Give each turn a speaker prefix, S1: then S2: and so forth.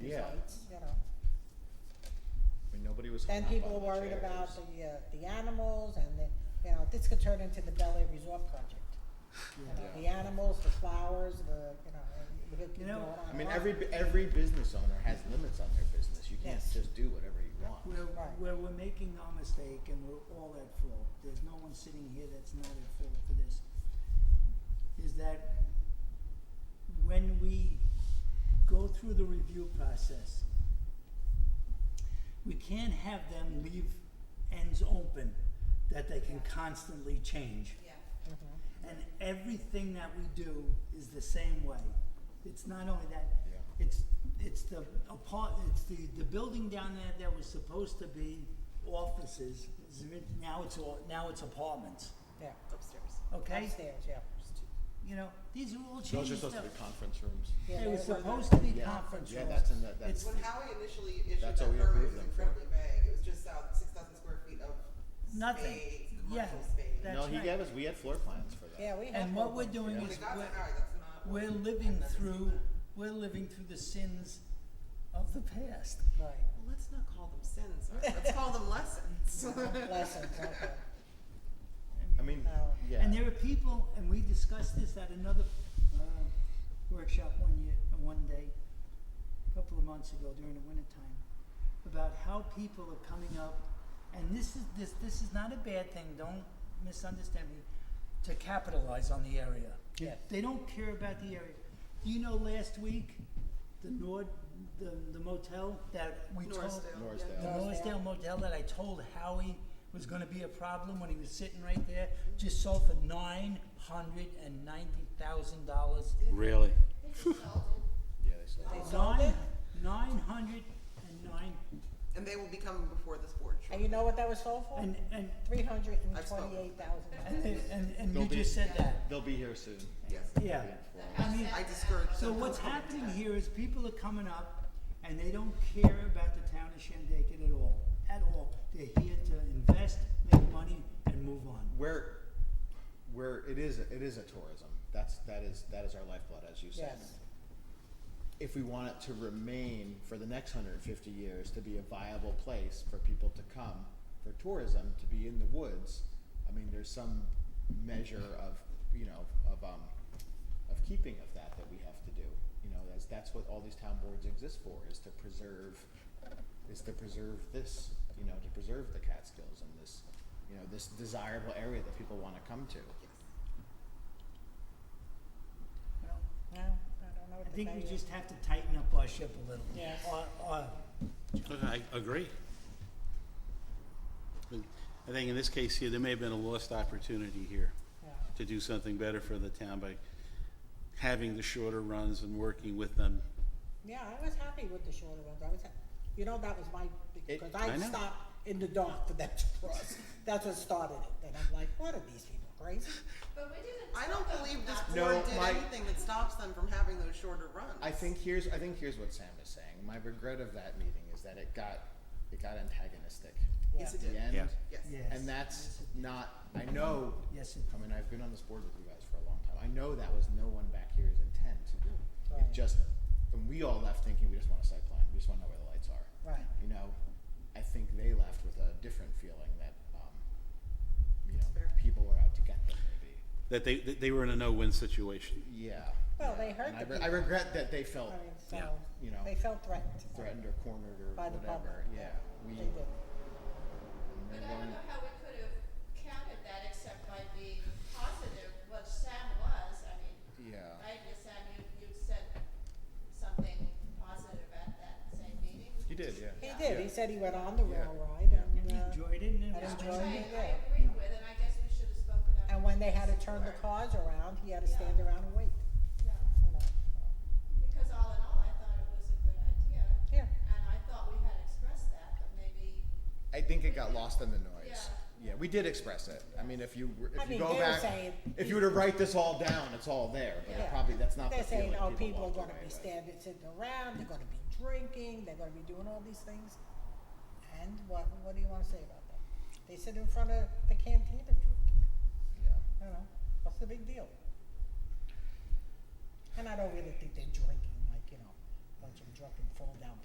S1: Yeah.
S2: results, you know.
S1: I mean, nobody was.
S2: Then
S1: hung up
S2: people
S1: on
S2: are
S1: the
S2: worried about
S1: chairs.
S2: the, uh, the animals and the, you know, this could turn into the Bel Air Resort project. You know,
S1: Yeah.
S2: the animals, the flowers, the, you know, and we could keep
S3: You
S2: going
S3: know,
S2: on and
S1: I mean,
S2: on.
S1: every, every business owner has limits on their business. You can't
S2: Yes.
S1: just do whatever you want.
S3: Where,
S2: Right.
S3: where we're making our mistake and we're all at fault, there's no one sitting here that's not at fault for this, is that when we go through the review process, we can't have them leave ends open that they can constantly change.
S4: Yeah,
S2: Mm-hmm.
S3: And everything that we do is the same way. It's not only that,
S1: Yeah.
S3: it's, it's the apart, it's the, the building down there that was supposed to be offices, is it- now it's all, now it's apartments,
S2: Yeah,
S4: upstairs.
S3: okay?
S2: upstairs, yeah.
S3: You know, these are all
S1: Those are
S3: changes
S1: supposed to be
S3: that,
S1: conference rooms.
S2: Yeah,
S3: they were
S2: they were-
S3: supposed to be
S1: Yeah.
S3: conference rooms.
S1: Yeah, that's in the- that's-
S3: It's-
S5: When Howie initially issued that
S1: That's what we
S5: permit,
S1: approved
S5: it was
S1: them for.
S5: incredibly vague, it was just out six thousand square feet of
S3: Nothing.
S5: space,
S3: Yeah,
S5: commercial space.
S3: that-
S1: No,
S3: That's
S1: he
S3: right.
S1: gave us, we had floor plans for that.
S2: Yeah, we have.
S3: And what we're
S2: programs.
S3: doing
S5: When
S3: is,
S5: it got to
S3: we're,
S5: Howard, that's not. what-
S3: we're living
S5: I've never seen
S3: through,
S5: that.
S3: we're living through the sins of the past.
S2: Right,
S5: Well, let's not call them sins, all right? let's call them lessons.
S2: lessons, okay.
S1: I mean,
S2: No.
S1: yeah.
S3: And there are people, and we discussed this at another uh, workshop one year, uh, one day, a couple of months ago during the wintertime, about how people are coming up, and this is this this is not a bad thing. Don't misunderstand me. To capitalize on the area,
S2: Yes.
S3: they don't care about the area. Do you know last week, the Nord, the the motel that we told,
S5: Norrisdale,
S1: Norrisdale.
S5: yeah.
S3: the
S2: Norrisdale.
S3: Norrisdale Motel that I told Howie was gonna be a problem when he was sitting right there, just sold for nine hundred and ninety thousand dollars.
S6: Really?
S1: Yeah, they sold.
S2: They sold
S3: Nine,
S2: it,
S3: nine hundred and nine,
S5: And they will be coming before this board
S2: and
S5: shortly.
S2: you know what that was sold for?
S3: and, and,
S2: Three hundred and
S5: I've spoken.
S2: twenty-eight thousand.
S3: and, and, and
S1: They'll
S3: you
S1: be-
S3: just said that,
S1: They'll be here soon.
S5: Yes,
S3: yeah.
S1: Informed.
S3: I mean,
S5: I discourage them.
S3: so
S5: from
S3: what's
S5: coming to
S3: happening
S5: that.
S3: here is people are coming up and they don't care about the town of Shandaken at all, at all. They're here to invest, make money, and move on.
S1: Where, where it is, it is a tourism. That's, that is, that is our lifeblood, as you said.
S2: Yes.
S1: If we want it to remain for the next hundred and fifty years to be a viable place for people to come for tourism, to be in the woods, I mean, there's some measure of, you know, of, um, of keeping of that that we have to do. You know, that's, that's what all these town boards exist for, is to preserve is to preserve this, you know, to preserve the Catskills and this, you know, this desirable area that people want to come to.
S3: Well,
S2: No, I don't know what
S3: I
S2: to
S3: think
S2: tell
S3: we
S2: you.
S3: just have to tighten up our ship a little. Uh,
S2: Yes.
S3: Or, or,
S6: I agree. But I think in this case here, there may have been a lost opportunity here
S2: Yeah.
S6: to do something better for the town by having the shorter runs and working with them.
S2: Yeah, I was happy with the shorter ones. I was, ha- you know, that was my,
S1: It-
S2: because
S6: I
S2: I
S6: know.
S2: stopped in the dark for them to cross. That's what started it. And I'm like, what are these people crazy?
S4: But we didn't.
S5: I
S4: talk
S5: don't
S4: about
S5: believe this
S4: that.
S1: No,
S5: board did
S1: my-
S5: anything that stops them from having those shorter runs.
S1: I think here's I think here's what Sam is saying. My regret of that meeting is that it got it got antagonistic
S5: Yes,
S2: Yeah.
S5: it
S1: at the
S5: did,
S1: end.
S6: Yeah.
S5: yes.
S3: yes.
S1: And that's not I know
S3: Yes, it-
S1: I mean I've been on this board with you guys for a long time. I know that was no one back here's intent.
S2: Right.
S1: It just and we all left thinking we just want a site plan. We just want to know where the lights are.
S2: Right.
S1: You know, I think they left with a different feeling that um, you know,
S5: Fair.
S1: people were out to get them maybe.
S6: That they, that they were in a no-win situation.
S1: Yeah.
S2: Well, they hurt
S1: And I,
S2: the
S1: re- I
S2: people.
S1: regret that they
S2: I
S1: felt
S2: mean,
S6: Yeah.
S2: so,
S1: You know.
S2: they felt threatened.
S1: threatened or cornered or
S2: By the
S1: whatever.
S2: public.
S1: Yeah. We
S2: They did.
S1: and
S4: But
S1: they
S4: I don't
S1: weren't-
S4: know how we could have countered that except by being positive, which Sam was, I mean,
S1: Yeah.
S4: right, you Sam, you, you said something positive at that same meeting.
S1: He did, yeah.
S2: He
S4: Yeah.
S2: did. He said he went on the
S1: Yeah.
S2: rail ride
S3: And
S2: and,
S3: you
S2: uh,
S3: enjoyed it and
S2: I
S3: it was
S2: enjoyed
S4: Which
S3: good.
S2: it.
S4: I, I
S2: yeah.
S4: agree with, and I guess we should have spoken up.
S2: and when they had to turn the
S4: more.
S2: cars around, he had to
S4: Yeah.
S2: stand around and wait,
S4: Yeah,
S2: you know.
S4: because all in all, I thought it was a good idea,
S2: Yeah,
S4: and I thought we had expressed that, but maybe,
S1: I think it got lost in the noise.
S4: Yeah.
S1: Yeah, we did express it. I mean, if you were-
S2: I
S1: if you
S2: mean,
S1: go
S2: they were
S1: back,
S2: saying-
S1: if you were to write this all down, it's all there. But it
S2: Yeah.
S1: probably that's not
S2: they're
S1: the feeling
S2: saying, oh, people are
S1: walked
S2: gonna
S1: away
S2: be
S1: with.
S2: standing, sitting around, they're gonna be drinking, they're gonna be doing all these things. And what, what do you wanna say about that? They sit in front of the cantina drinking.
S1: Yeah.
S2: you know, what's the big deal? And I don't really think they're drinking, like, you know, bunch of drunken fall down